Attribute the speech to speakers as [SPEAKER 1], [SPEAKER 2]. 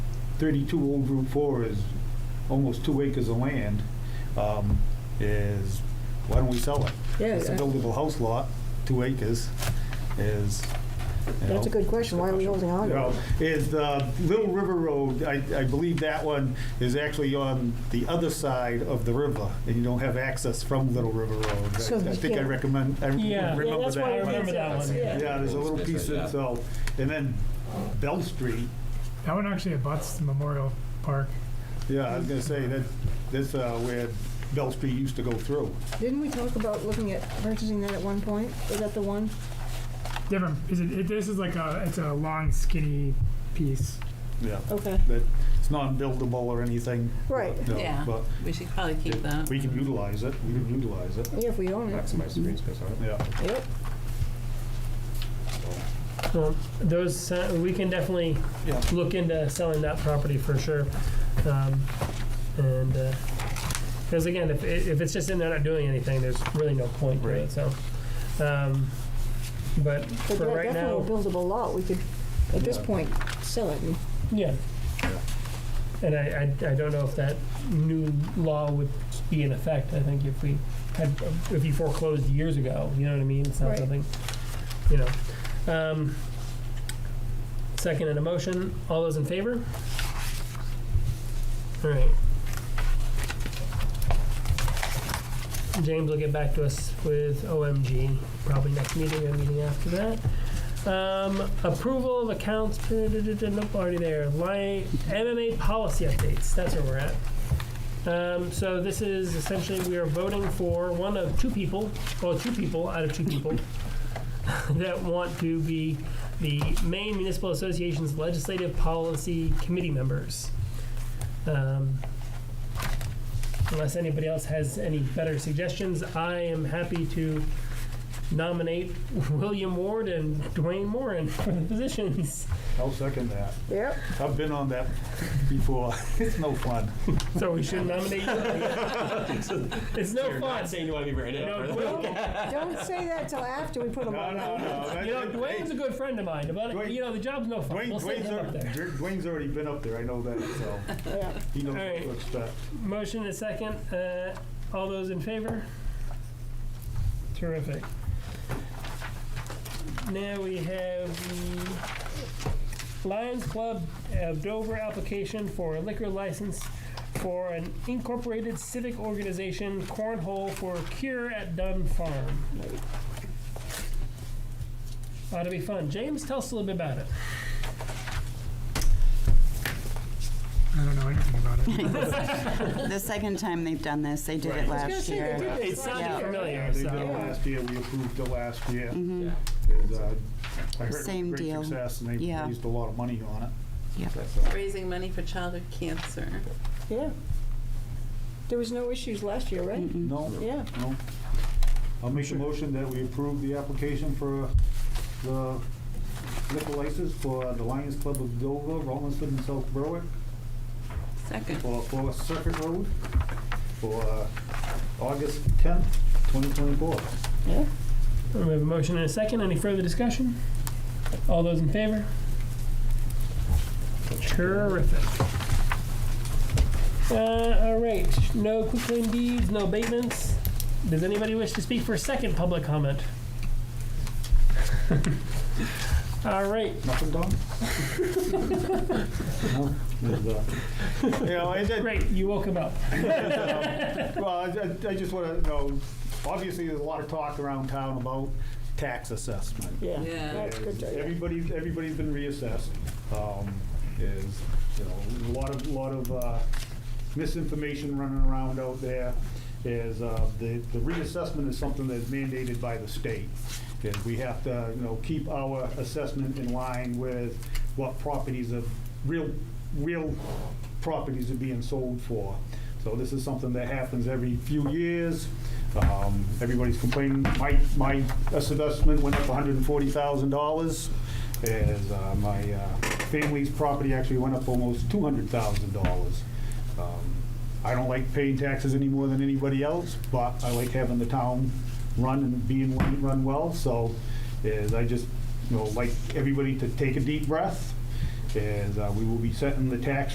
[SPEAKER 1] 32 Old Route 4 is almost two acres of land, um, is, why don't we sell it?
[SPEAKER 2] Yeah,
[SPEAKER 1] It's a
[SPEAKER 2] yeah.
[SPEAKER 1] buildable house lot, two acres, is, you
[SPEAKER 2] That's a
[SPEAKER 1] know.
[SPEAKER 2] good question. Why are we holding on?
[SPEAKER 1] You
[SPEAKER 2] to
[SPEAKER 1] know,
[SPEAKER 2] it?
[SPEAKER 1] Is uh, Little River Road, I I believe that one is actually on the other side of the river, and you don't have access from Little River Road.
[SPEAKER 2] So
[SPEAKER 1] I- I
[SPEAKER 2] you
[SPEAKER 1] think I
[SPEAKER 2] can't-
[SPEAKER 1] recommend, I remember
[SPEAKER 3] Yeah.
[SPEAKER 1] that.
[SPEAKER 3] Yeah,
[SPEAKER 2] that's why
[SPEAKER 3] I
[SPEAKER 2] we
[SPEAKER 3] remember
[SPEAKER 2] can't
[SPEAKER 3] that
[SPEAKER 2] sell
[SPEAKER 3] one.
[SPEAKER 2] it,
[SPEAKER 1] Yeah, there's a little piece of, so, and then Bell Street,
[SPEAKER 4] That one actually abuts the Memorial Park.
[SPEAKER 1] yeah, I was gonna say, that, that's uh, where Bell Street used to go through.
[SPEAKER 2] Didn't we talk about looking at purchasing that at one point? Is that the one?
[SPEAKER 4] Different, is it, it- this is like a, it's a long skinny piece.
[SPEAKER 1] Yeah.
[SPEAKER 2] Okay.
[SPEAKER 1] That, it's not buildable or anything.
[SPEAKER 2] Right.
[SPEAKER 1] no,
[SPEAKER 5] Yeah,
[SPEAKER 1] But
[SPEAKER 5] we should probably keep that.
[SPEAKER 1] we can utilize it, we can utilize it,
[SPEAKER 2] Yeah, if we own it.
[SPEAKER 6] Maximize the green space on it.
[SPEAKER 1] yeah.
[SPEAKER 2] Yep.
[SPEAKER 3] Well, those, sa- we can definitely
[SPEAKER 1] Yeah.
[SPEAKER 3] look into selling that property for sure. Um, And, because again, if, if it's just in there not doing anything, there's really no point to it,
[SPEAKER 1] Right.
[SPEAKER 3] so. um, But
[SPEAKER 2] But
[SPEAKER 3] for
[SPEAKER 2] that-
[SPEAKER 3] right now,
[SPEAKER 2] definitely a buildable lot. We could, at this
[SPEAKER 1] Yeah.
[SPEAKER 2] point, sell it. and-
[SPEAKER 3] yeah. And I, I, I don't know if that new law would be in effect. I think if we had, if you foreclosed years ago, you know what I mean? It's not
[SPEAKER 2] Right.
[SPEAKER 3] something, you know. Um, Second and a motion. All those in favor? All right. James will get back to us with OMG, probably next meeting or meeting after that. Um, approval of accounts, duh, duh, duh, duh, nope, already there. Line, MMA policy updates, that's where we're at. Um, so this is essentially, we are voting for one of two people, well, two people out of two people that want to be the Maine Municipal Association's Legislative Policy Committee members. Um, unless anybody else has any better suggestions, I am happy to nominate William Ward and Dwayne Moran for the positions.
[SPEAKER 1] I'll second that.
[SPEAKER 2] Yep.
[SPEAKER 1] I've been on that before. It's no fun.
[SPEAKER 3] So we should nominate. it's no fun.
[SPEAKER 6] saying you want to be written
[SPEAKER 3] No, Dwayne,
[SPEAKER 2] Don't say that till after we put them on.
[SPEAKER 1] no.
[SPEAKER 3] you know, Dwayne's a good friend of mine, but
[SPEAKER 1] Dwayne-
[SPEAKER 3] you know the job's no fun.
[SPEAKER 1] Dwayne,
[SPEAKER 3] we'll send
[SPEAKER 1] Dwayne's,
[SPEAKER 3] him up
[SPEAKER 1] already,
[SPEAKER 3] there.
[SPEAKER 1] Dwayne's already been up there. I know that, so
[SPEAKER 2] Yeah.
[SPEAKER 1] he knows
[SPEAKER 3] All right.
[SPEAKER 1] what to expect.
[SPEAKER 3] Motion is second. Uh, all those in favor? Terrific. Now we have the Lions Club of Dover application for a liquor license for an incorporated civic organization cornhole for cure at Dunn Farm. Ought to be fun. James, tell us a little bit about it.
[SPEAKER 4] I don't know anything about it.
[SPEAKER 7] The second time they've done this, they did
[SPEAKER 1] Right.
[SPEAKER 7] it
[SPEAKER 1] I was
[SPEAKER 2] gonna
[SPEAKER 7] last
[SPEAKER 2] say they
[SPEAKER 7] year.
[SPEAKER 2] did that.
[SPEAKER 3] It
[SPEAKER 2] It's not
[SPEAKER 3] sounded
[SPEAKER 7] Yeah.
[SPEAKER 1] Yeah, they
[SPEAKER 3] familiar,
[SPEAKER 1] did
[SPEAKER 3] so. Mm-hmm.
[SPEAKER 1] it last year. We approved it last year.
[SPEAKER 7] Mhm.
[SPEAKER 1] And, uh, I heard
[SPEAKER 7] Same
[SPEAKER 1] great
[SPEAKER 7] deal.
[SPEAKER 1] success, and they
[SPEAKER 7] Yeah.
[SPEAKER 1] raised a lot of money on it.
[SPEAKER 7] Yep.
[SPEAKER 1] That's, uh,
[SPEAKER 5] Raising money for childhood cancer.
[SPEAKER 2] Yeah. There was no issues last year, right?
[SPEAKER 7] Mm-mm.
[SPEAKER 1] no,
[SPEAKER 2] Yeah.
[SPEAKER 1] no. I'll make a motion that we approve the application for the liquor license for the Lions Club of Dover, Rollinsford, and South Berwick
[SPEAKER 5] Second.
[SPEAKER 1] for for Circuit Road for uh, August 10th, 2024.
[SPEAKER 2] Yeah.
[SPEAKER 3] We have a motion and a second. Any further discussion? All those in favor? Terrific. Uh, all right. No quick claim deeds, no abatements. Does anybody wish to speak for a second public comment? all right.
[SPEAKER 1] Nothing done? uh, You know, I did,
[SPEAKER 3] Great. You woke him up.
[SPEAKER 1] well, I, I- I just wanna know, obviously, there's a lot of talk around town about tax assessment.
[SPEAKER 2] Yeah.
[SPEAKER 5] Yeah.
[SPEAKER 2] That's good. to- yeah.
[SPEAKER 1] Everybody's, everybody's been reassessed, um, is, you know, a lot of, lot of, uh, misinformation running around out there. Is, uh, the, the reassessment is something that's mandated by the state. And we have to, you know, keep our assessment in line with what properties of, real, real properties are being sold for. So this is something that happens every few years. Um, Everybody's complaining, my, my assessment went up hundred and forty thousand dollars. As uh, my uh, family's property actually went up almost two hundred thousand dollars. Um, I don't like paying taxes any more than anybody else, but I like having the town run and being run well. So is I just, you know, like everybody to take a deep breath. Is uh, we will be setting the tax